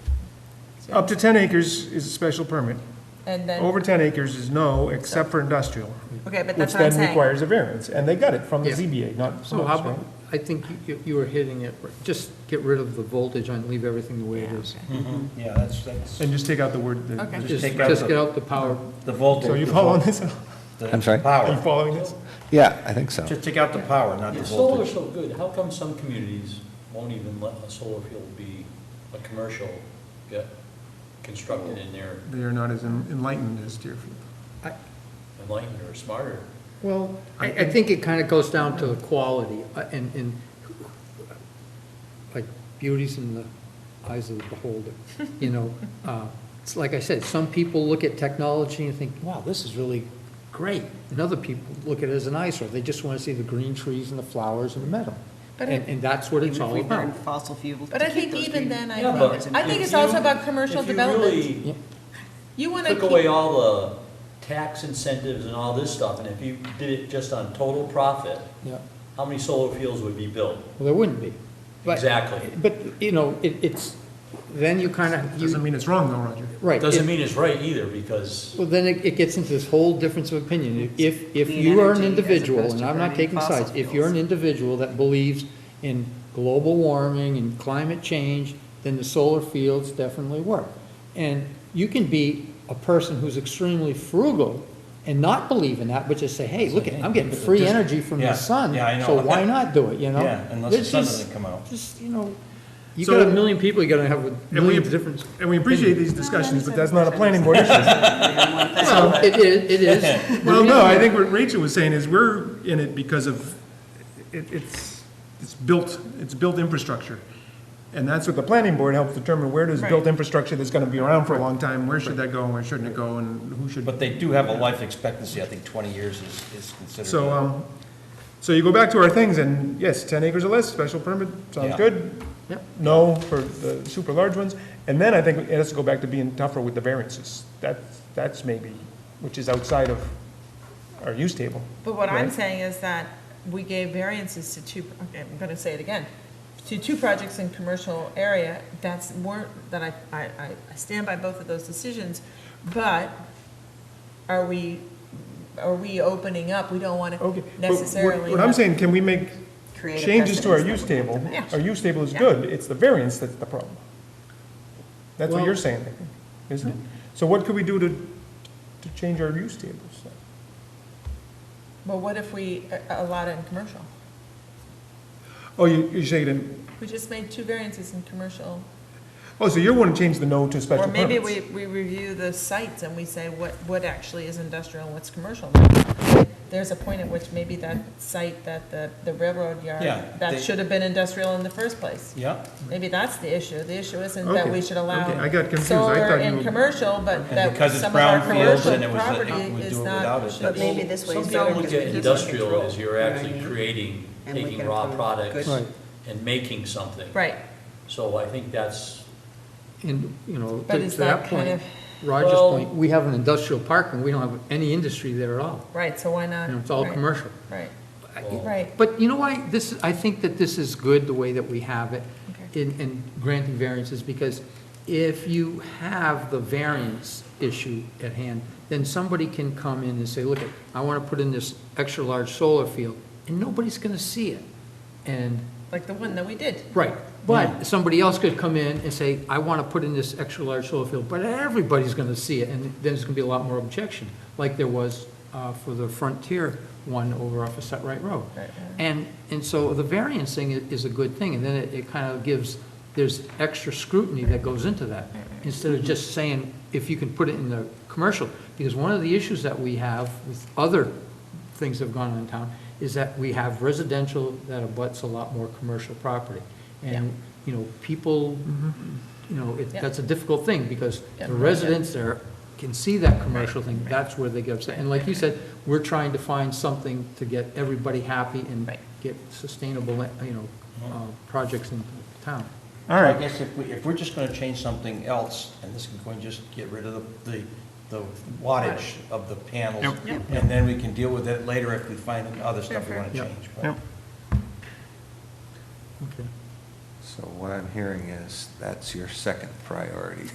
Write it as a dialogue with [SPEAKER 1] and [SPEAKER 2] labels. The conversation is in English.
[SPEAKER 1] Up to 10 acres is a special permit.
[SPEAKER 2] And then,
[SPEAKER 1] Over 10 acres is no, except for industrial,
[SPEAKER 2] okay, but
[SPEAKER 1] which
[SPEAKER 2] that's what I'm
[SPEAKER 1] then
[SPEAKER 2] saying.
[SPEAKER 1] requires a variance. And they got it from the
[SPEAKER 3] Yeah.
[SPEAKER 1] ZBA, not from
[SPEAKER 3] So how
[SPEAKER 1] us, right?
[SPEAKER 3] about, I think you- you were hitting it, just get rid of the voltage and leave everything the way it is.
[SPEAKER 4] Yeah, that's, that's,
[SPEAKER 1] And just take out the word, the-
[SPEAKER 2] Okay.
[SPEAKER 3] Just,
[SPEAKER 4] take out
[SPEAKER 3] just
[SPEAKER 4] the-
[SPEAKER 3] get out the power,
[SPEAKER 4] the voltage.
[SPEAKER 1] so you following this?
[SPEAKER 4] the
[SPEAKER 5] I'm sorry?
[SPEAKER 1] Are you
[SPEAKER 4] Power.
[SPEAKER 1] following this?
[SPEAKER 5] Yeah, I think so.
[SPEAKER 4] Just take out the power, not the
[SPEAKER 6] If solar's
[SPEAKER 4] voltage.
[SPEAKER 6] so good, how come some communities won't even let a solar field be a commercial get constructed in their
[SPEAKER 1] They are not as enlightened as Deerfield.
[SPEAKER 6] enlightened or smarter?
[SPEAKER 3] well, I, I think it kind of goes down to the quality uh, and, and like beauty's in the eyes of the beholder, you know? Uh, It's like I said, some people look at technology and think, wow, this is really great. And other people look at it as an eyesore. They just want to see the green trees and the flowers and the meadow.
[SPEAKER 7] But I-
[SPEAKER 3] And, and that's what it's all about.
[SPEAKER 7] fossil fuels.
[SPEAKER 2] But I think even then, I
[SPEAKER 6] Yeah,
[SPEAKER 2] think,
[SPEAKER 6] but
[SPEAKER 2] it's- I think
[SPEAKER 6] if
[SPEAKER 2] it's also
[SPEAKER 6] you-
[SPEAKER 2] about commercial
[SPEAKER 6] If
[SPEAKER 2] development.
[SPEAKER 6] you really
[SPEAKER 2] You want to
[SPEAKER 6] took away
[SPEAKER 2] keep,
[SPEAKER 6] all the tax incentives and all this stuff, and if you did it just on total profit,
[SPEAKER 3] Yeah.
[SPEAKER 6] how many solar fields would be built?
[SPEAKER 3] Well, there wouldn't be. But-
[SPEAKER 6] Exactly.
[SPEAKER 3] But, you know, it, it's, then you kind
[SPEAKER 1] Doesn't
[SPEAKER 3] of,
[SPEAKER 1] mean it's wrong though, Roger.
[SPEAKER 3] right.
[SPEAKER 6] Doesn't
[SPEAKER 3] it-
[SPEAKER 6] mean it's right either, because
[SPEAKER 3] Well, then it, it gets into this whole difference of opinion. If, if
[SPEAKER 7] Clean
[SPEAKER 3] you are an
[SPEAKER 7] energy as
[SPEAKER 3] individual,
[SPEAKER 7] opposed
[SPEAKER 3] and
[SPEAKER 7] to
[SPEAKER 3] I'm not
[SPEAKER 7] burning
[SPEAKER 3] taking
[SPEAKER 7] fossil
[SPEAKER 3] sides, if you're an
[SPEAKER 7] fuels.
[SPEAKER 3] individual that believes in global warming and climate change, then the solar fields definitely work. And you can be a person who's extremely frugal and not believe in that, but just say, hey, look, I'm getting free
[SPEAKER 4] Just-
[SPEAKER 3] energy from the
[SPEAKER 4] yeah,
[SPEAKER 3] sun,
[SPEAKER 4] yeah, I know.
[SPEAKER 3] so why not do it, you know?
[SPEAKER 4] Yeah, unless the
[SPEAKER 3] There's
[SPEAKER 4] sun
[SPEAKER 3] just-
[SPEAKER 4] doesn't come out.
[SPEAKER 3] Just, you know, you
[SPEAKER 1] So-
[SPEAKER 3] got a million people you gotta have with
[SPEAKER 1] And we,
[SPEAKER 3] millions of different.
[SPEAKER 1] and we appreciate these discussions, but that's not a planning board issue.
[SPEAKER 3] Well, it is, it is.
[SPEAKER 1] Well, no, I think what Rachel was saying is we're in it because of, it, it's, it's built, it's built infrastructure. And that's what the planning board helps determine, where does built infrastructure that's gonna be around for a long time, where should that go and where shouldn't it go and who should?
[SPEAKER 4] But they do have a life expectancy, I think twenty years is, is considered.
[SPEAKER 1] So, um, so you go back to our things and yes, ten acres or less, special permit, sounds
[SPEAKER 4] Yeah.
[SPEAKER 1] good.
[SPEAKER 3] Yep.
[SPEAKER 1] No for the super large ones. And then I think it has to go back to being tougher with the variances. That's, that's maybe, which is outside of our use table.
[SPEAKER 2] but what I'm
[SPEAKER 1] Right.
[SPEAKER 2] saying is that we gave variances to two, okay, I'm going to say it again, to two projects in commercial area, that's, weren't, that I, I, I- I stand by both of those decisions, but are we, are we opening up? We don't want
[SPEAKER 1] Okay.
[SPEAKER 2] to
[SPEAKER 1] but what-
[SPEAKER 2] necessarily.
[SPEAKER 1] What I'm
[SPEAKER 2] have-
[SPEAKER 1] saying, can we make
[SPEAKER 7] Create a
[SPEAKER 1] changes to our
[SPEAKER 7] precedence
[SPEAKER 1] use table?
[SPEAKER 2] Yeah.
[SPEAKER 1] Our use table is
[SPEAKER 2] Yeah.
[SPEAKER 1] good, it's the variance that's the problem. That's what
[SPEAKER 3] Well-
[SPEAKER 1] you're saying, I think, isn't it? So what could we do to, to change our use tables?
[SPEAKER 2] But what if we uh, allowed it in commercial?
[SPEAKER 1] Oh, you, you're saying, it in-
[SPEAKER 2] We just made two variances in commercial.
[SPEAKER 1] oh, so you're wanting to change the no to
[SPEAKER 2] Or
[SPEAKER 1] special
[SPEAKER 2] maybe we,
[SPEAKER 1] permits?
[SPEAKER 2] we review the sites and we say what, what actually is industrial and what's commercial. now. There's a point at which maybe that site, that the, the railroad yard,
[SPEAKER 4] Yeah, they-
[SPEAKER 2] that should have been industrial in the first place.
[SPEAKER 4] Yeah,
[SPEAKER 2] Maybe that's the issue. The issue isn't that
[SPEAKER 1] Okay,
[SPEAKER 2] we should
[SPEAKER 1] okay, I
[SPEAKER 2] allow
[SPEAKER 1] got confused. I
[SPEAKER 2] solar
[SPEAKER 1] thought you
[SPEAKER 2] and
[SPEAKER 1] were-
[SPEAKER 2] commercial, but that
[SPEAKER 4] because it's
[SPEAKER 2] some of our
[SPEAKER 4] brownfields
[SPEAKER 2] commercial
[SPEAKER 4] and it was, uh,
[SPEAKER 2] property
[SPEAKER 4] we
[SPEAKER 2] is
[SPEAKER 4] do it
[SPEAKER 2] not.
[SPEAKER 4] without it,
[SPEAKER 7] But
[SPEAKER 4] that's-
[SPEAKER 7] maybe this way.
[SPEAKER 6] some
[SPEAKER 7] solar
[SPEAKER 6] people look
[SPEAKER 7] can
[SPEAKER 6] at
[SPEAKER 7] keep
[SPEAKER 6] industrial
[SPEAKER 7] control,
[SPEAKER 6] as you're actually
[SPEAKER 7] right?
[SPEAKER 6] creating,
[SPEAKER 7] And we
[SPEAKER 6] taking
[SPEAKER 7] can
[SPEAKER 6] raw
[SPEAKER 7] approve
[SPEAKER 6] products
[SPEAKER 3] Right.
[SPEAKER 6] and making something.
[SPEAKER 2] Right,
[SPEAKER 6] So I think that's,
[SPEAKER 3] And, you know,
[SPEAKER 2] But
[SPEAKER 3] to
[SPEAKER 2] is
[SPEAKER 3] to that
[SPEAKER 2] that kind
[SPEAKER 3] point,
[SPEAKER 2] of-
[SPEAKER 3] Roger's
[SPEAKER 6] Well-
[SPEAKER 3] point, we have an industrial park and we don't have any industry there at all.
[SPEAKER 2] right, so why not?
[SPEAKER 3] You know, it's all
[SPEAKER 2] Right,
[SPEAKER 3] commercial.
[SPEAKER 2] Right,
[SPEAKER 3] I-
[SPEAKER 6] Well-
[SPEAKER 2] right.
[SPEAKER 3] But you know why, this, I think that this is good, the way that we have it
[SPEAKER 2] Okay.
[SPEAKER 3] in, in granting variances, because if you have the variance issue at hand, then somebody can come in and say, look, I want to put in this extra-large solar field, and nobody's going to see it. And
[SPEAKER 2] Like the one that we did.
[SPEAKER 3] Right, but somebody else could come in and say, I want to put in this extra-large solar field, but everybody's going to see it, and then there's going to be a lot more objection, like there was uh, for the Frontier one over off of Set Right Road.
[SPEAKER 2] Right, right.
[SPEAKER 3] And, and so the variance thing i- is a good thing, and then it, it kind of gives, there's extra scrutiny that goes into that, instead of just saying, if you can put it in the commercial, because one of the issues that we have with other things that have gone on in town, is that we have residential that abuts a lot more commercial property. And, you know, people, you know, it,
[SPEAKER 2] Yeah.
[SPEAKER 3] that's a difficult thing, because
[SPEAKER 2] Yeah.
[SPEAKER 3] the residents there can see that commercial thing, that's where they get upset. And like you said, we're trying to find something to get everybody happy and
[SPEAKER 2] Right.
[SPEAKER 3] get sustainable, you know, uh, projects in town.
[SPEAKER 1] All
[SPEAKER 4] I
[SPEAKER 1] right,
[SPEAKER 4] guess if we, if we're just gonna change something else, and this can go and just get rid of the, the, the wattage of the panels,
[SPEAKER 1] Yep.
[SPEAKER 4] and then we can deal with it later if we find other stuff we wanna
[SPEAKER 3] Sure, sure.
[SPEAKER 4] change. but-
[SPEAKER 1] Yep.
[SPEAKER 3] Okay.
[SPEAKER 5] So what I'm hearing is that's your second priority.